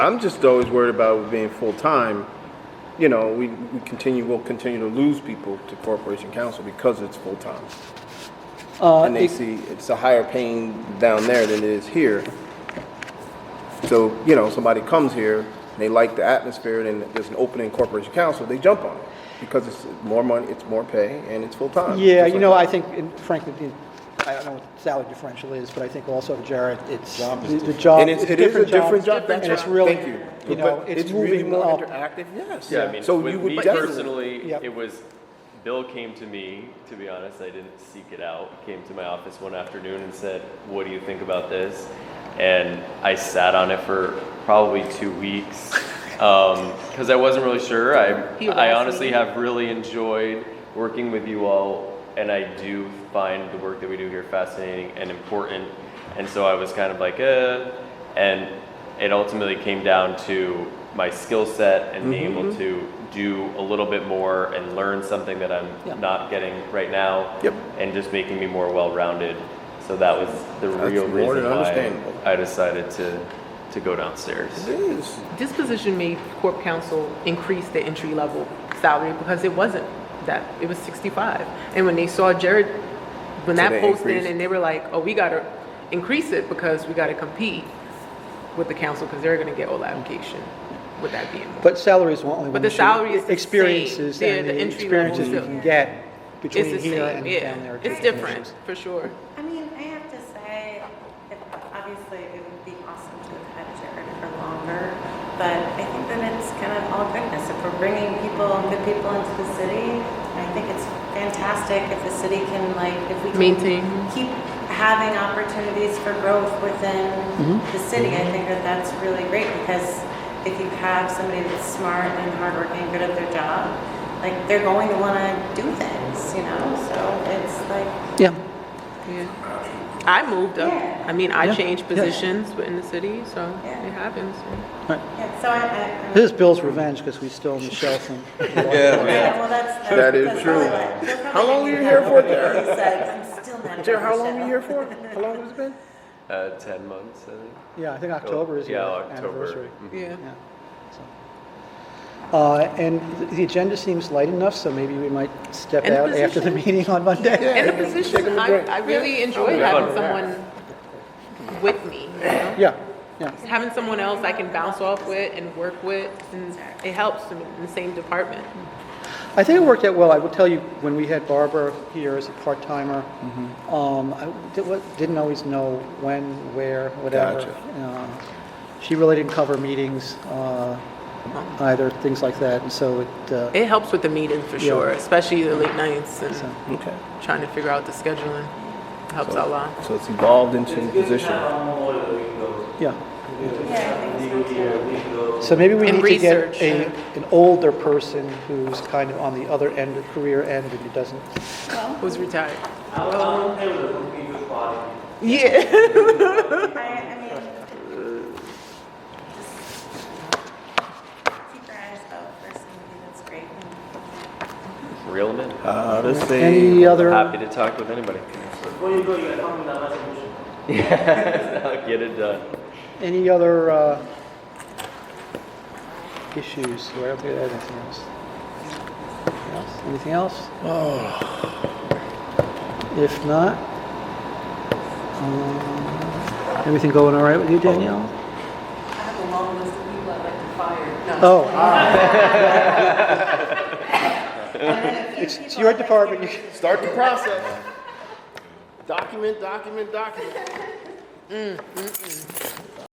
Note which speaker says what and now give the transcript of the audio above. Speaker 1: I'm just always worried about it being full time. You know, we, we continue, we'll continue to lose people to corporation council because it's full time.
Speaker 2: Uh,
Speaker 1: And they see it's a higher paying down there than it is here. So, you know, somebody comes here, they like the atmosphere, then there's an opening corporation council, they jump on it. Because it's more money, it's more pay, and it's full time.
Speaker 2: Yeah, you know, I think, and frankly, the- I don't know what the salary differential is, but I think also, Jared, it's, the the job,
Speaker 1: And it's,
Speaker 2: it's
Speaker 1: it is a
Speaker 2: different
Speaker 1: different
Speaker 2: job.
Speaker 1: job,
Speaker 2: And
Speaker 1: that's
Speaker 2: it's
Speaker 1: right,
Speaker 2: really,
Speaker 1: thank you.
Speaker 2: you know,
Speaker 1: But
Speaker 2: it's
Speaker 1: really
Speaker 2: moving
Speaker 1: more
Speaker 2: up.
Speaker 1: interactive, yes.
Speaker 3: Yeah, I mean,
Speaker 1: So
Speaker 3: with
Speaker 1: you would
Speaker 3: me
Speaker 1: definitely,
Speaker 3: personally,
Speaker 2: Yep.
Speaker 3: it was, Bill came to me, to be honest, I didn't seek it out. He Came to my office one afternoon and said, what do you think about this? And I sat on it for probably two weeks, um, cause I wasn't really sure. I,
Speaker 4: He was
Speaker 3: I
Speaker 4: asking
Speaker 3: honestly
Speaker 4: me.
Speaker 3: have really enjoyed working with you all and I do find the work that we do here fascinating and important. And so I was kind of like, eh, and it ultimately came down to my skill set and
Speaker 1: Mm-hmm,
Speaker 3: being able to do a little bit more and learn something that I'm
Speaker 2: Yeah.
Speaker 3: not getting right now.
Speaker 1: Yep.
Speaker 3: And just making me more well-rounded. So that was the
Speaker 1: That's
Speaker 3: real
Speaker 1: more
Speaker 3: reason
Speaker 1: than
Speaker 3: why
Speaker 1: understandable.
Speaker 3: I decided to, to go downstairs.
Speaker 1: it is.
Speaker 4: This position made corp counsel increase the entry level salary because it wasn't that, it was 65. And when they saw Jared, when
Speaker 1: So
Speaker 4: that
Speaker 1: they
Speaker 4: posted
Speaker 1: increased.
Speaker 4: and they were like, oh, we gotta increase it because we gotta compete with the council because they're gonna get all the application with that being. more.
Speaker 2: But salaries won't only.
Speaker 4: But the salary is the same.
Speaker 2: Experiences
Speaker 4: They're
Speaker 2: and
Speaker 4: the
Speaker 2: the
Speaker 4: entry
Speaker 2: experiences
Speaker 4: level
Speaker 2: you
Speaker 4: still.
Speaker 2: can get
Speaker 4: It's
Speaker 2: between
Speaker 4: the
Speaker 2: here and
Speaker 4: same,
Speaker 2: down
Speaker 4: yeah.
Speaker 2: there.
Speaker 4: It's different, for sure.
Speaker 5: I mean, I have to say, it, obviously, it would be awesome to have had Jared for longer, but I think that it's kind of all goodness. If we're bringing people, good people into the city, I think it's fantastic if the city can like, if we can
Speaker 4: Maintain.
Speaker 5: keep having opportunities for growth within the city. I think that that's really great because if you have somebody that's smart and hardworking, good at their job, like they're going to want to do things, you know. So it's like.
Speaker 2: Yeah,
Speaker 4: Yeah. I moved up.
Speaker 5: Yeah.
Speaker 4: I mean, I
Speaker 2: Yeah.
Speaker 4: changed
Speaker 2: Yeah.
Speaker 4: positions within the city, so
Speaker 5: Yeah.
Speaker 4: it happens.
Speaker 5: Yeah, so I, I. I'm-
Speaker 2: this is Bill's revenge because we stole Michelle from.
Speaker 5: Yeah, well, that's.
Speaker 1: That is true. How long were you here for, Jared?
Speaker 5: I'm still not.
Speaker 1: Jared, how long are you here for? How long has it been?
Speaker 3: Uh, ten months, I think.
Speaker 2: Yeah, I think October is the
Speaker 3: Yeah, October.
Speaker 2: anniversary.
Speaker 4: Yeah.
Speaker 2: Yeah. so. Uh, And th- the agenda seems light enough, so maybe we might step
Speaker 4: And the
Speaker 2: out after the
Speaker 4: position.
Speaker 2: meeting on Monday.
Speaker 4: In the
Speaker 1: Yeah, take him
Speaker 4: position,
Speaker 1: a
Speaker 4: I,
Speaker 1: drink.
Speaker 4: I really enjoy
Speaker 3: Yeah.
Speaker 4: having
Speaker 3: Fun.
Speaker 4: someone with me. you know?
Speaker 2: Yeah, yeah.
Speaker 4: Having someone else I can bounce off with and work with, and it helps in the same department.
Speaker 2: I think it worked out well. I will tell you, when we had Barbara here as a part-timer, um, I di- wa- didn't always know when, where, whatever.
Speaker 1: Gotcha.
Speaker 2: Uh, She really didn't cover meetings uh, either, things like that, and so it, uh,
Speaker 4: It helps with the meetings for
Speaker 2: Yeah.
Speaker 4: sure, especially the late nights and
Speaker 2: So-
Speaker 1: Okay.
Speaker 4: trying to figure out the scheduling. Helps a lot.
Speaker 1: So it's evolved into the position.
Speaker 2: yeah.
Speaker 5: Yeah, I think so.
Speaker 2: So maybe we
Speaker 4: And
Speaker 2: need to get
Speaker 4: research.
Speaker 2: a, an older person who's kind of on the other end, of career end, and who doesn't.
Speaker 4: Who's retired?
Speaker 5: I, I mean. just Keep our eyes out for somebody that's great.
Speaker 3: Real men.
Speaker 1: Uh, let's
Speaker 2: Any other,
Speaker 3: Happy to talk with anybody. Yeah, get it done.
Speaker 2: any other uh, issues? Do I have to add anything else? Anything else? Anything else? If not, um, everything going all right with you, Danielle?
Speaker 6: I have a long list of people I'd like to fire.
Speaker 4: Uh-huh.
Speaker 6: No.
Speaker 2: Oh, ah,
Speaker 5: It's,
Speaker 2: it's your department. You-
Speaker 1: Start the process. Document, document, document.